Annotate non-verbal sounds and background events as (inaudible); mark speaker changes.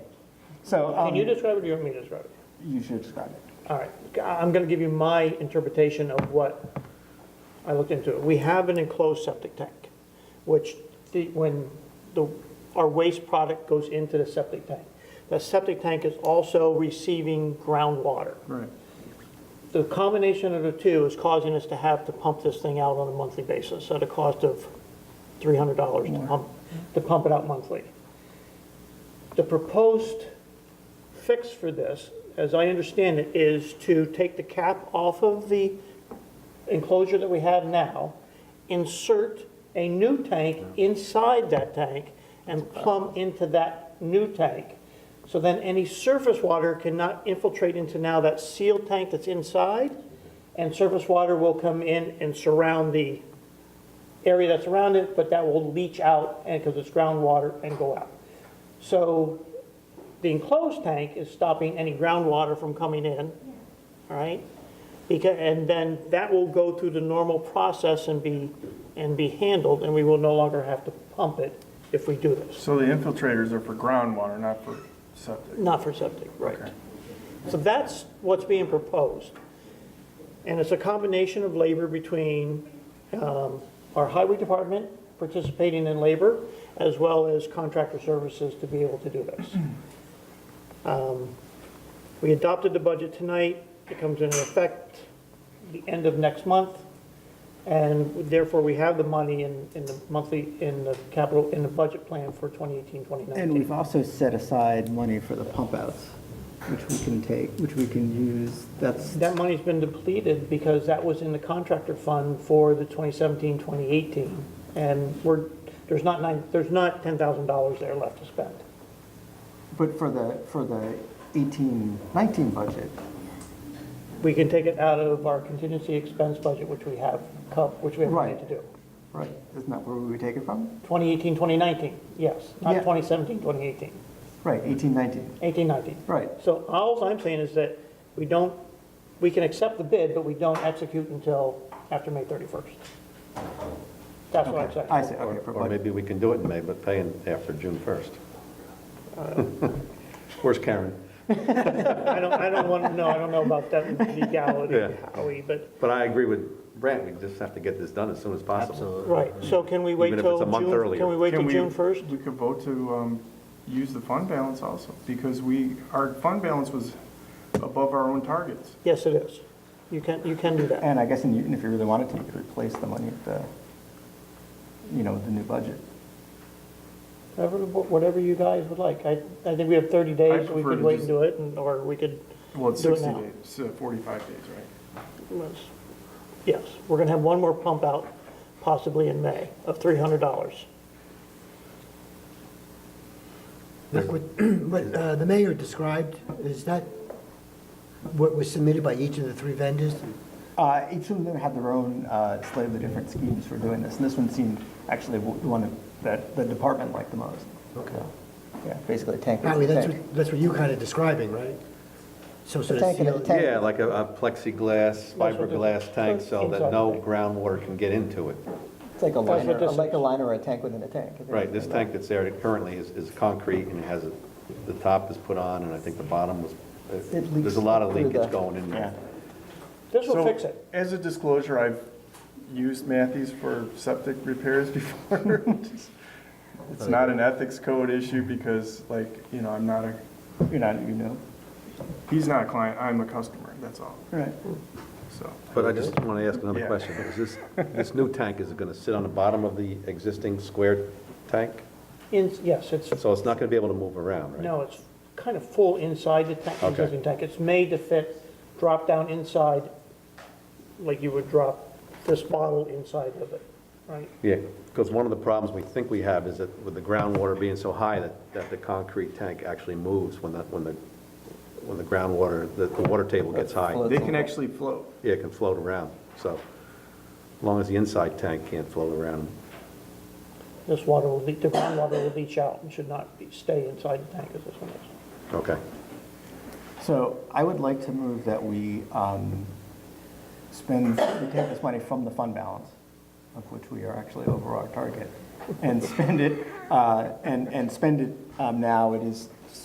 Speaker 1: So
Speaker 2: Can you
Speaker 1: um,
Speaker 2: describe it or you want me to describe it?
Speaker 1: you should describe it.
Speaker 2: All right, I'm going to give you my interpretation of what I looked into. We have an enclosed septic tank, which the, when the, our waste product goes into the septic tank. The septic tank is also receiving groundwater.
Speaker 1: Right.
Speaker 2: the combination of the two is causing us to have to pump this thing out on a monthly basis at a cost of three hundred dollars to pump, to pump it out monthly. The proposed fix for this, as I understand it, is to take the cap off of the enclosure that we have now, insert a new tank inside that tank and plumb into that new tank. So then any surface water cannot infiltrate into now that sealed tank that's inside, and surface water will come in and surround the area that's around it, but that will leach out and, because it's groundwater, and go out. So the enclosed tank is stopping any groundwater from coming in, all right? Because, and then that will go through the normal process and be, and be handled, and we will no longer have to pump it if we do this,
Speaker 3: So the infiltrators are for groundwater, not for septic?
Speaker 2: not for septic, right? So that's what's being proposed. And it's a combination of labor between um, our highway department participating in labor, as well as contractor services to be able to do this. Um, We adopted the budget tonight, it comes into effect the end of next month, and therefore we have the money in, in the monthly, in the capital, in the budget plan for 2018, 2019.
Speaker 4: And we've also set aside money for the pump outs, which we can take, which we can use. That's,
Speaker 2: That money's been depleted because that was in the contractor fund for the 2017, 2018. And we're, there's not nine, there's not $10,000 there left to spend.
Speaker 4: but for the, for the 18, 19 budget,
Speaker 2: We can take it out of our contingency expense budget, which we have, co- which we have money to
Speaker 4: Right.
Speaker 2: do.
Speaker 4: right, isn't that where we would take it from?
Speaker 2: 2018, 2019, yes, not
Speaker 4: Yeah.
Speaker 2: 2017, 2018,
Speaker 4: Right, 18, 19,
Speaker 2: 18, 19.
Speaker 4: right.
Speaker 2: So all I'm saying is that we don't, we can accept the bid, but we don't execute until after May 31st. That's what I'm saying.
Speaker 4: I see, okay, for
Speaker 5: Or
Speaker 4: budget.
Speaker 5: maybe we can do it in May, but pay in after June 1st. Where's Karen?
Speaker 2: I don't, I don't want, no, I don't know about that legality,
Speaker 5: Yeah.
Speaker 2: Howie, but,
Speaker 5: But I agree with Brent, we just have to get this done as soon as possible.
Speaker 2: right, so can we wait
Speaker 5: Even if it's
Speaker 2: till
Speaker 5: a month
Speaker 2: June?
Speaker 5: earlier.
Speaker 2: Can we wait
Speaker 3: Can
Speaker 2: till
Speaker 3: we-
Speaker 2: June 1st?
Speaker 3: We could vote to um, use the fund balance also, because we, our fund balance was above our own targets.
Speaker 2: Yes, it is. You can, you can do that.
Speaker 4: And I guess in Newton, if you really wanted to, you could replace the money at the, you know, with the new budget.
Speaker 2: Whatever, whatever you guys would like. I, I think we have 30 days, so we
Speaker 3: prefer
Speaker 2: could
Speaker 3: to
Speaker 2: wait and
Speaker 3: just-
Speaker 2: do it, and or we could
Speaker 3: Well, it's
Speaker 2: Do it
Speaker 3: 60
Speaker 2: now.
Speaker 3: days, so 45 days, right?
Speaker 2: was- Yes, we're going to have one more pump out possibly in May of $300.
Speaker 6: Look, What (clears throat) what, uh, the mayor described, is that what was submitted by each of the three vendors?
Speaker 4: Uh, Each of them had their own uh, slightly different schemes for doing this, and this one seemed actually the one that the department liked the most. Okay. Yeah, basically a tank.
Speaker 6: Howie, that's
Speaker 4: tank.
Speaker 6: what, that's what you kind of describing, right? Some sort of
Speaker 4: Tank and a
Speaker 6: seal.
Speaker 4: tank.
Speaker 5: Yeah, like a a plexiglass,
Speaker 2: what the-
Speaker 5: fiberglass tank so that no groundwater can get into it.
Speaker 4: It's like a
Speaker 2: That's what
Speaker 4: liner,
Speaker 2: this
Speaker 4: like a
Speaker 2: is.
Speaker 4: liner or a tank within a tank.
Speaker 5: Right, this tank that's there currently is, is concrete and it has, a- the top is put on and I think the bottom was,
Speaker 4: It leaks
Speaker 5: there's a lot of
Speaker 4: through the-
Speaker 5: leakage going in there.
Speaker 2: This will
Speaker 3: So,
Speaker 2: fix it.
Speaker 3: As a disclosure, I've used Matthews for septic repairs (laughs) before. It's not an ethics code issue because like, you know, I'm not a,
Speaker 4: You're not, you know,
Speaker 3: he's not a client, I'm a customer, that's all,
Speaker 4: right.
Speaker 3: so.
Speaker 5: But I just want to ask another
Speaker 3: Yeah.
Speaker 5: question. Is this, this new tank, is it going to sit on the bottom of the existing square tank?
Speaker 2: In- Yes, it's
Speaker 5: So it's not going to be able to move around, right?
Speaker 2: No, it's kind of full inside the tank,
Speaker 5: Okay.
Speaker 2: existing tank. It's made to fit, drop down inside, like you would drop this bottle inside of it, right?
Speaker 5: Yeah, because one of the problems we think we have is that with the groundwater being so high that, that the concrete tank actually moves when the, when the, when the groundwater, the, the water table gets high.
Speaker 4: Float.
Speaker 3: They can actually float.
Speaker 5: Yeah, it can float around, so as long as the inside tank can't float around.
Speaker 2: This water will, leak- the groundwater will leach out and should not be, stay inside the tank as this one is.
Speaker 5: Okay.
Speaker 4: So I would like to move that we um, spend, we take this money from the fund balance, of which we are actually over our target, and spend it, uh, and, and spend it um, now, it is